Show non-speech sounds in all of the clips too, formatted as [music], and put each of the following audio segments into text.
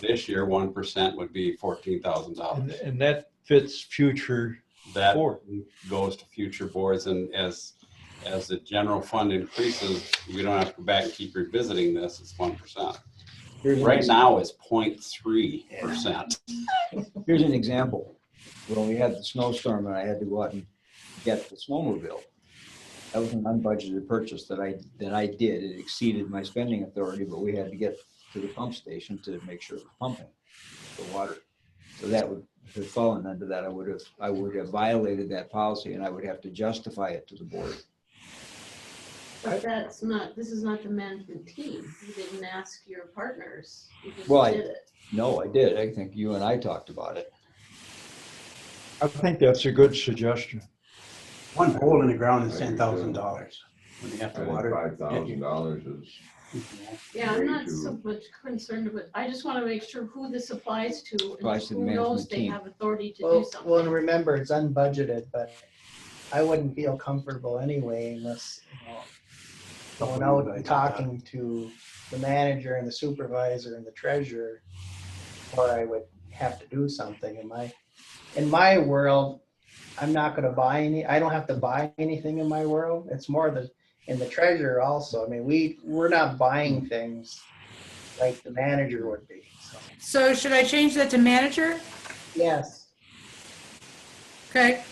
This year, one percent would be fourteen thousand And, dollars. and that fits future, That Four. goes to future boards and as, as the general fund increases, you don't have to go back and keep revisiting this, it's one percent. Here's an Right ex- now, it's 0.3 percent. Here's an example. When we had the snowstorm and I had to go out and get the snowmobile. That was an unbudgeted purchase that I, that I did. It exceeded my spending authority, but we had to get to the pump station to make sure it was pumping the water. So that would, if it fallen under that, I would have, I would have violated that policy and I would have to justify it to the board. But that's not, this is not the management team. You didn't ask your partners. You just Well, I- did it. No, I did. I think you and I talked about it. I think that's a good suggestion. One hole in the ground is ten thousand dollars when they have to water. Five thousand dollars is, Yeah, I'm Way not to- so much concerned with, I just want to make sure who this applies to and Applies to the who knows management they team. have authority to do Well, well, and something. remember, it's unbudgeted, but I wouldn't feel comfortable anyway unless, you know, going out and talking to the manager and the supervisor and the treasurer, or I would have to do something in my, in my world, I'm not gonna buy any, I don't have to buy anything in my world. It's more the, in the treasurer also. I mean, we, we're not buying things like the manager would be, so, So should I change that to manager? yes. Okay,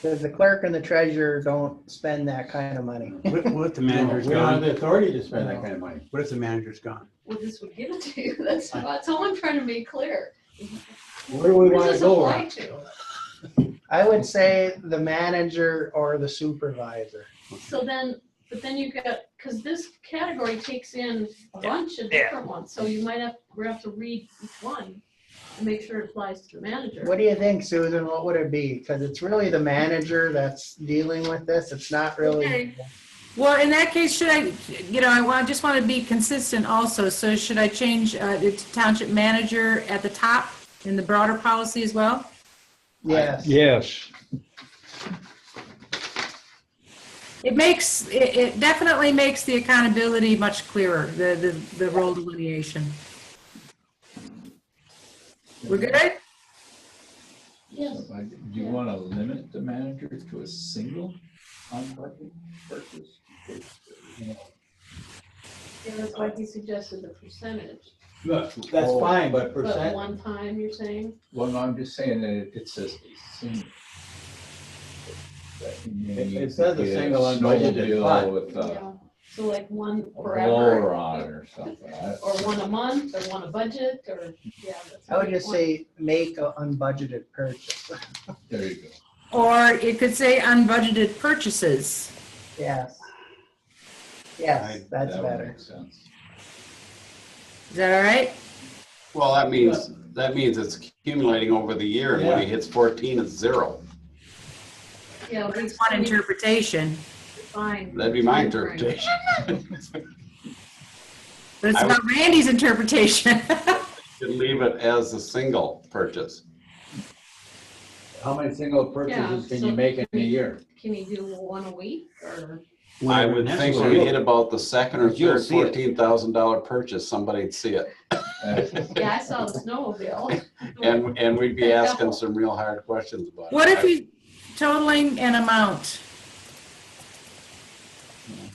Because the clerk and the treasurer don't spend that kind of money. What what if the we manager's don't have gone? the authority to spend that kind of money. What if the manager's gone? Well, this would give it to you. [laughs] That's, that's all I'm trying to make clear. Where do we Who want to does this go? apply to? I would say the manager or the supervisor. So then, but then you got, because this category takes in a bunch of different ones, so you might have, we have to read each one and make sure it applies to the manager. What do you think, Susan? What would it be? Because it's really the manager that's dealing with this. It's not really. Okay. well, in that case, should I, you know, I want, just want to be consistent also, so should I change uh, it to township manager at the top in the broader policy as well? Yes. Yes, It makes, it it definitely makes the accountability much clearer, the, the, the role delineation. We're good? Yes. Like, Do you want to limit the manager to a single unbudgeted purchase? Yeah, that's why he suggested the percentage. That's Oh, fine, but But one time, you're saying? Well, no, I'm just saying that it it says a single. That means It says a you get single unbudgeted snowmobile fund. With a Yeah. So like one forever, blower on it or something. I- or one a month, or one a budget, or, yeah. that's- I would just say make an unbudgeted purchase. There you go. Or it could say unbudgeted purchases. Yes. Yes, Right, that's That would better. make sense. Is that all right? Well, that means, that means it's accumulating over the year, and when it hits fourteen, it's zero. Yeah, we- That's one interpretation, we define- That'd be my interpretation. [laughs] but it's I would- not Randy's interpretation. [laughs] Could leave it as a single purchase. How many single Yeah, purchases can so- you make in a year? Can you do one a week, or? I would think when we hit about the second or You'll third see it. fourteen thousand dollar purchase, somebody'd see [laughs] it. Uh, Yeah, I saw the [laughs] snowmobile. And, and we'd be asking some real hard questions about it. What if you totaling an amount?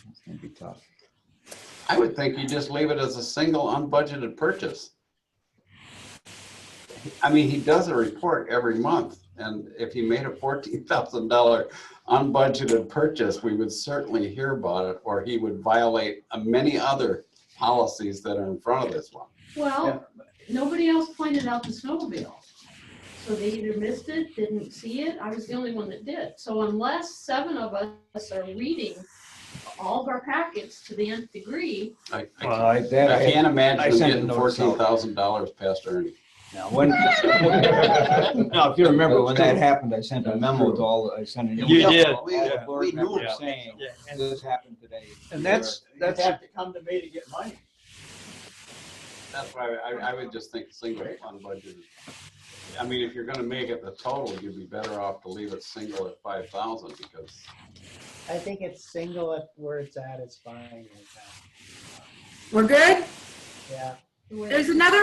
It's gonna be tough. I would think you just leave it as a single unbudgeted purchase. I mean, he does a report every month, and if he made a fourteen thousand dollar unbudgeted purchase, we would certainly hear about it, or he would violate uh, many other policies that are in front of this one. Well, nobody else pointed out the snowmobile. So they either missed it, didn't see it, I was the only one that did. So unless seven of us are reading all of our packets to the nth degree, I, I Well, can't- I, that, I I, can't imagine him sent a getting notice out. fourteen thousand dollars past earning. now, when, [laughs] now, if you remember, when that happened, I sent a memo to all, I sent an You email. did. to all the board We knew members it. Saying, Yeah. this happened today. and that's, You'd that's, have to come to me to get money. That's why I, I would just think single unbudgeted. I mean, if you're gonna make it the total, you'd be better off to leave it single at five thousand because I think it's single if where it's at is fine. right now. We're good? Yeah. where- There's another